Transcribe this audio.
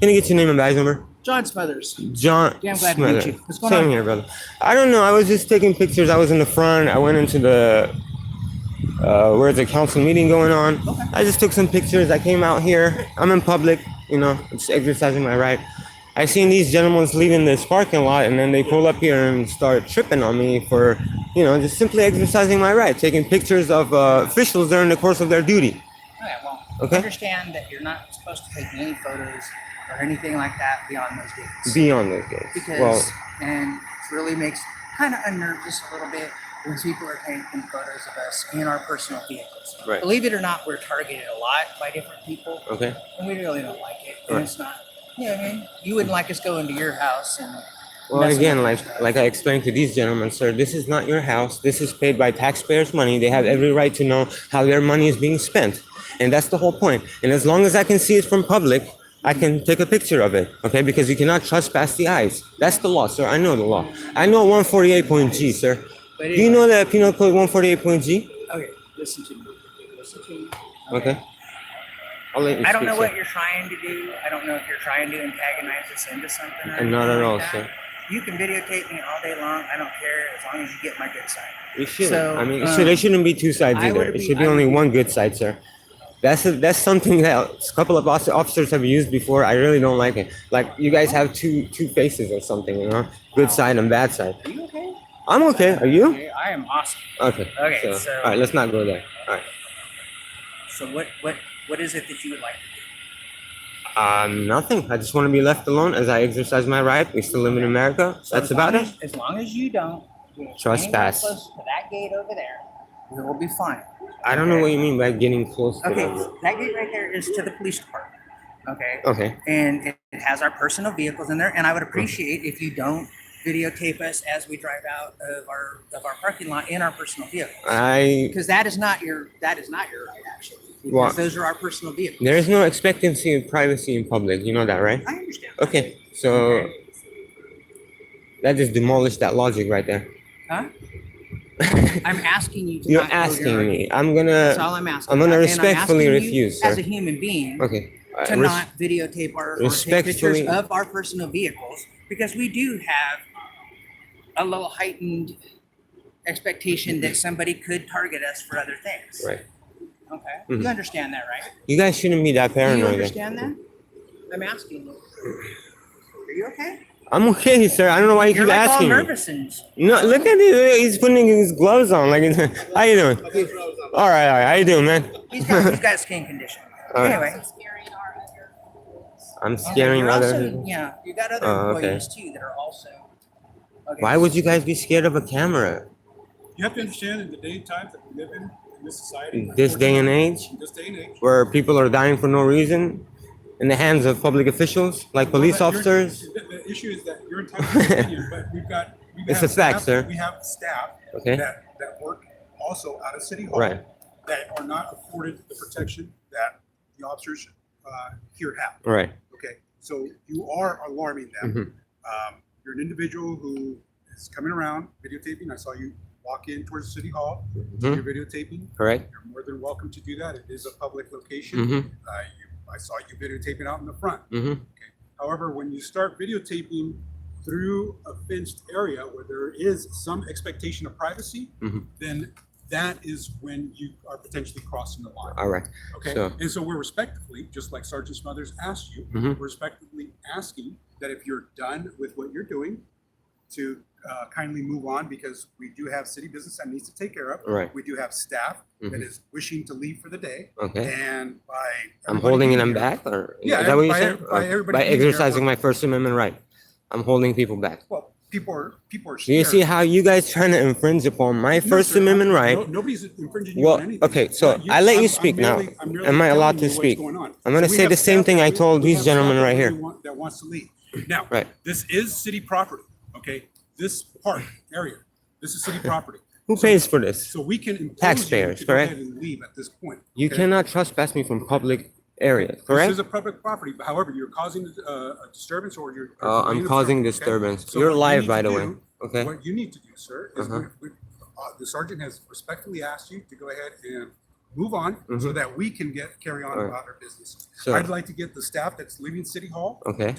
Can I get your name and badge number? John Smethers. John. Yeah, I'm glad to meet Smither. you. What's going Same on? here, brother. I don't know. I was just taking pictures. I was in the front. I went into the uh, where's the council meeting going on. Okay. I just took some pictures. I came out here. I'm in public. You know, just exercising my right. I seen these gentlemen leaving this parking lot, and then they pull up here and start tripping on me for, you know, just simply exercising my right, taking pictures of uh, officials during the course of their duty. Okay, well, Okay. understand that you're not supposed to take any photos or anything like that beyond those dates. Beyond those days. because, well, and it really makes kind of unnerved us a little bit when people are taking photos of us in our personal vehicles. Right. Believe it or not, we're targeted a lot by different people, okay. and we really don't like it. And Right. it's not, you know what I mean? You wouldn't like us going to your house and Well, messing again, with like your stuff. like I explained to these gentlemen, sir, this is not your house. This is paid by taxpayers' money. They have every right to know how their money is being spent, and that's the whole point. And as long as I can see it from public, I can take a picture of it, okay? Because you cannot trespass the eyes. That's the law, sir. I know the law. I know 148.g, sir. But Do you know the Penal Code 148.g? Okay, listen to me. Listen to me. Okay. I'll let you I don't speak, know sir. what you're trying to do. I don't know if you're trying to antagonize us into something. Or And not anything at like all, that. sir. You can videotape me all day long. I don't care as long as you get my good side. It shouldn't. So, I mean, it um, should, there shouldn't be two sides I either. would it be- should be I would only be- one good side, sir. That's a, that's something that a couple of offic- officers have used before. I really don't like it. Like you guys have two two faces or something, you know, good side and bad side. Are you okay? I'm okay. Are you? Okay, I am awesome. Okay. Okay, so- all right, let's not go there. All right. So what what what is it that you would like to do? Uh, nothing. I just want to be left alone as I exercise my right. We still live in America. So That's as long about it. as- As long as you don't get anywhere Trespass. close to that gate over there, we will be fine. I don't know what you mean by getting close. To Okay, them. that gate right there is to the police department. Okay. Okay. and it it has our personal vehicles in there. And I Mm-hmm. would appreciate if you don't videotape us as we drive out of our of our parking lot in our personal vehicles, I because that is not your that is not your right actually. Because Why? those are our personal vehicles. there is no expectancy of privacy in public. You know that, right? I understand. Okay, so that just demolished that logic right there. Huh? I'm asking you. To You're not go your- asking me. I'm That's gonna. all I'm asking. I'm gonna about, and respectfully asking you refuse, As sir. a human being, Okay. uh, to res- not videotape our or take pictures respectfully- of our personal vehicles because we do have a little heightened expectation that somebody could target us for other things. Right. Okay. Mhm. You understand that, right? You guys shouldn't be that Do paranoid. you understand that? I'm asking you. Are you okay? I'm okay, sir. I don't know why you You're keep like all asking. me. nervous and No, look at it. He's putting his gloves on. Like, it's- how you doing? All right, all right. How you doing, man? he's got, he's got a skin condition. All right. Anyway. I'm scaring You're other. also- people. Yeah, you got other Oh, okay. employees too that are also. Okay. Why would you guys be scared of a camera You have to understand in the day and times that we live in, in this society. in this day and age, In this day and age. where people are dying for no reason, in the hands of public officials like police Well, but you're- officers? The, the issue is that you're entitled to an opinion, but we've got. We It's have a fact, staff- sir. We have staff Okay. that, that work also out of City Hall. Right. That are not afforded the protection that the officers uh, here have. Right. Okay, so you are alarming Mhm. them. Um, You're an individual who is coming around videotaping. I saw you walk in towards City Hall. Mhm. You're videotaping. Correct. You're more than welcome to do that. It is a public location. hmm Uh, you, I saw you videotaping out in the front. hmm However, when you start videotaping through a fenced area where there is some expectation of privacy, Mhm. then that is when you are potentially crossing the line. All right. Okay, So- and so we're respectfully, just like Sergeant Smothers asked you, we're Mhm. respectfully asking that if you're done with what you're doing, to uh, kindly move on because we do have city business that needs to take care of. Right. We do have staff that Mhm. is wishing to leave for the day, Okay. and by I'm everybody holding being them here- back, or Yeah, is that what you by- said? by Or by everybody being here, exercising we're- my First Amendment right, I'm holding people back. Well, people are people are Do you scared. see how you guys trying to infringe upon my No, First sir, Amendment no- right? Nobody's infringing you Well, on anything. okay, so I let you speak now. Am I allowed to speak? I'm gonna say the same thing I told these gentlemen right here. That wants to leave. Now, Right. this is city property, okay? This park area, this is city property. Who So- pays for this? So we can impose you Taxpayers, to go ahead correct? and leave at this point. You okay? cannot trespass me from public area, This is correct? a public property, but however, you're causing uh, a disturbance or you're. Uh, I'm causing disturbance. You're live, live, by the way. Okay. What you need to do, sir, is Uh-huh. we- we- uh, the sergeant has respectfully asked you to go ahead and move on so Mhm. that we can get, carry on Alright. about our business. Sure. I'd like to get the staff that's leaving City Hall Okay.